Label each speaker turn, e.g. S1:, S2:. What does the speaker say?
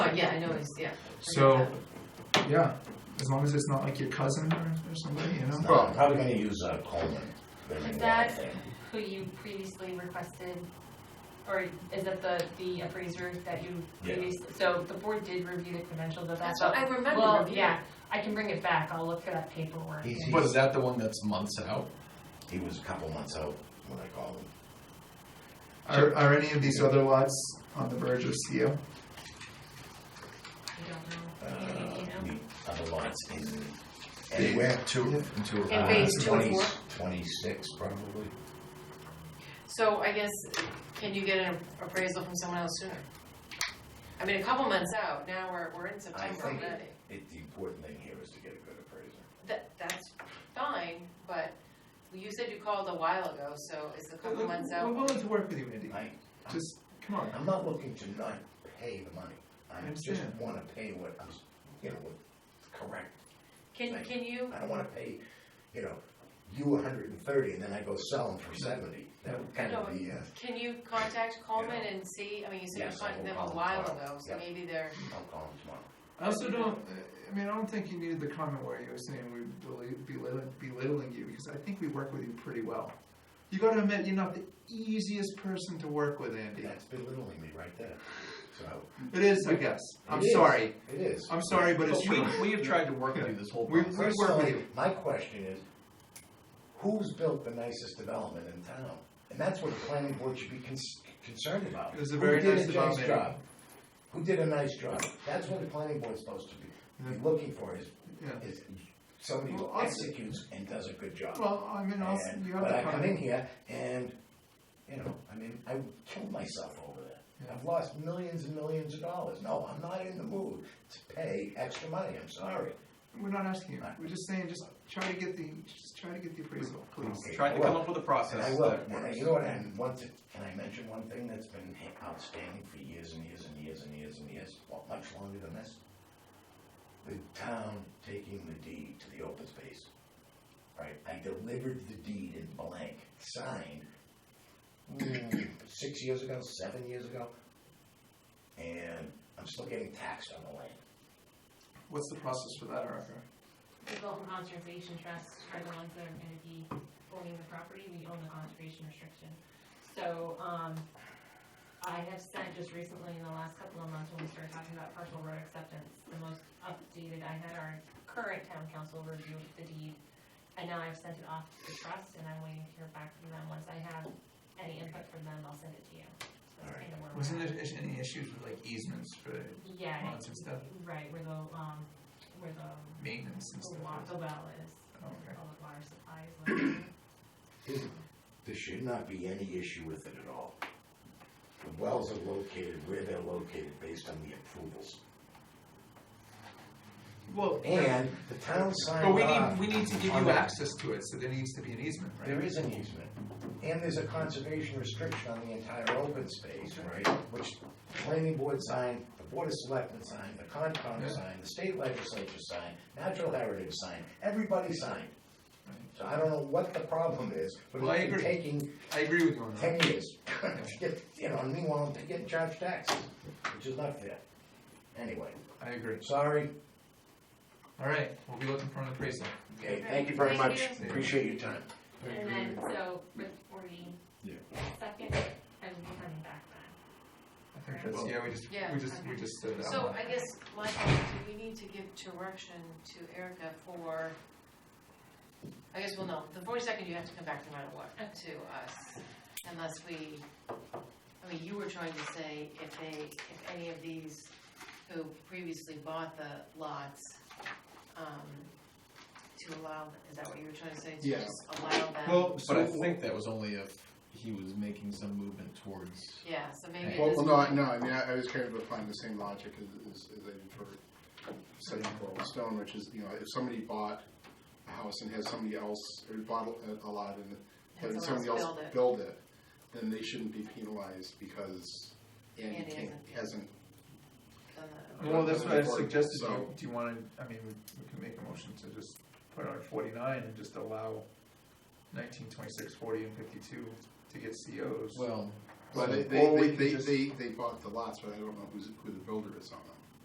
S1: No, Oh, yeah, I know, it's, yeah.
S2: So, yeah, as long as it's not like your cousin or, or somebody, you know?
S3: Well, I'm probably gonna use uh, Coleman. They're gonna
S4: Is
S3: be
S4: that
S3: out there.
S4: who you previously requested, or is that the, the appraiser that you
S3: Yeah.
S4: previously? So the board did review the credentials of that.
S1: That's what
S4: but-
S1: I remember.
S4: Well,
S1: reviewing.
S4: yeah, I can bring it back, I'll look for that paperwork.
S3: He's,
S5: But
S3: he's,
S5: is that the one that's months out?
S3: he was a couple months out when I called him.
S2: Are, are any of these other lots on the verge of CO?
S4: I don't know. You think
S3: Uh,
S4: you know?
S3: the other lots in, anywhere,
S5: Two, two.
S1: In phase two and four.
S3: Twenty-six probably.
S1: So I guess, can you get an appraisal from someone else sooner? I mean, a couple months out, now we're, we're in September
S3: think-
S1: already.
S3: It, the important thing here is to get a good appraiser.
S1: That, that's fine, but you said you called a while ago, so is a couple months
S2: We're
S1: out?
S2: willing to work with you, Andy.
S3: I,
S2: Just, come on.
S3: I'm not looking to not pay the money. I just
S2: understand.
S3: wanna pay what I'm, s- you know, what's correct.
S1: Can, can you,
S3: I don't wanna pay, you know, you hundred and thirty and then I go sell them for seventy. That would kind of be, uh,
S1: can you contact Coleman and see, I mean, you said you
S3: Yes, I
S1: contacted them
S3: will
S1: a
S3: call
S1: while
S3: tomorrow.
S1: ago, so
S3: Yeah.
S1: maybe they're,
S3: I'll call him tomorrow.
S2: I also don't, I mean, I don't think you needed the comment where you were saying we beli- belittling, belittling you, because I think we work with you pretty well. You gotta admit, you're not the easiest person to work with, Andy.
S3: That's belittling me right there. So,
S2: It is, I guess. I'm
S3: It is.
S2: sorry.
S3: it is.
S2: I'm sorry, but
S5: But
S2: it's
S5: we,
S2: true.
S5: we have tried to work with you this whole
S2: We-
S5: process.
S2: we- work with
S3: Personally, my question is, who's built the nicest development in town? And that's what the planning board should be cons- concerned about.
S2: It was a
S3: Who
S2: very
S3: did
S2: nice development.
S3: job? Who did a nice job? That's what the planning board's supposed to be, be looking for is,
S2: Yeah.
S3: is somebody who
S2: Well, I'll say-
S3: executes and does a good job.
S2: Well, I mean, I'll, s-
S3: And-
S2: you have
S3: But
S2: the
S3: I come in
S2: comment.
S3: here and, you know, I mean, I killed myself over that.
S2: Yeah.
S3: I've lost millions and millions of dollars. No, I'm not in the mood to pay extra money, I'm sorry.
S2: We're not asking you. We're just saying, just try to get the, just try to get the appraisal, please.
S3: Okay,
S5: Tried
S3: I
S5: to come
S3: will.
S5: up with a
S3: And
S5: process
S3: I
S5: that
S3: will,
S5: works.
S3: and I- you know what, and one thing, can I mention one thing that's been outstanding for years and years and years and years and years, well, much longer than this? The town taking the deed to the open space, right? I delivered the deed in blank, signed, mm, six years ago, seven years ago, and I'm still getting taxed on the land.
S2: What's the process for that, Erica?
S4: The Bolton Conservation Trust are the ones that are gonna be owning the property, we own the conservation restriction. So, um, I have sent just recently in the last couple of months when we started talking about partial road acceptance, the most updated, I had our current town council review the deed. And now I've sent it off to the trust and I'm waiting to hear back from them, once I have any input from them, I'll send it to you. So that's kind of where we're
S2: Wasn't
S4: at.
S2: there is- any issues with like easements for
S4: Yeah,
S2: lots and stuff,
S4: right, where the, um, where the,
S2: maintenance and
S4: the
S2: stuff?
S4: wa- the well is.
S2: Okay.
S4: Public water supply is located.
S3: There should not be any issue with it at all. The wells are located where they're located based on the approvals.
S2: Well,
S3: And the town signed
S2: but we
S3: off
S2: need, we need to give
S3: on
S2: you
S3: the-
S2: access to it, so there needs to be an easement, right?
S3: There is an easement, and there's a conservation restriction on the entire open space, right? Which the planning board signed, the board of selectmen signed, the
S2: Yeah.
S3: Concom signed, the state legislature signed, natural heritage signed, everybody signed.
S2: Right.
S3: So I don't know what the problem is, but
S2: Well, I
S3: it's been
S2: agree.
S3: taking
S2: I agree with you on
S3: ten
S2: that.
S3: years. to get- You know, and meanwhile, they're getting charged taxes, which is not fair. Anyway,
S2: I agree.
S3: sorry,
S2: All right, we'll be looking for an appraisal.
S3: okay, thank you very
S1: Thank
S3: much,
S2: you.
S3: appreciate your time.
S4: And then, so, before we.
S5: Yeah.
S4: Second, I will be coming back then.
S2: I think that's, yeah, we just,
S1: Yeah.
S2: we just, we just said that.
S1: so I guess, my question is, do we need to give direction to Erica for, I guess, well, no, the forty-second, you have to come back no matter what, to us, unless we, I mean, you were trying to say if they, if any of these who previously bought the lots, um, to allow, is that what you were trying to say? To
S5: Yeah.
S1: just allow them?
S5: Well, but I think that was only if he was making some movement towards.
S1: Yeah, so maybe. it
S6: Well, well,
S1: doesn't-
S6: no, I, no, I mean, I, I was kind of applying the same logic as, as, as I did for setting up Rolling Stone, which is, you know, if somebody bought a house and has somebody else, or bought a, a lot and
S1: Has someone
S6: then somebody
S1: else
S6: else
S1: build it.
S6: build it, then they shouldn't be penalized because Andy
S1: Andy
S6: can't,
S1: hasn't.
S6: hasn't.
S1: Done that.
S2: Well, that's what I
S6: Before-
S2: suggested, do you,
S6: so-
S2: do you wanna, I mean, we we can make a motion to just put on forty-nine and just allow nineteen, twenty-six, forty, and fifty-two to get COs.
S5: Well,
S6: But
S5: so-
S6: they,
S2: or we
S6: they,
S2: can
S6: they,
S2: just-
S6: they, they bought the lots, but I don't know who's, who the builder is on them.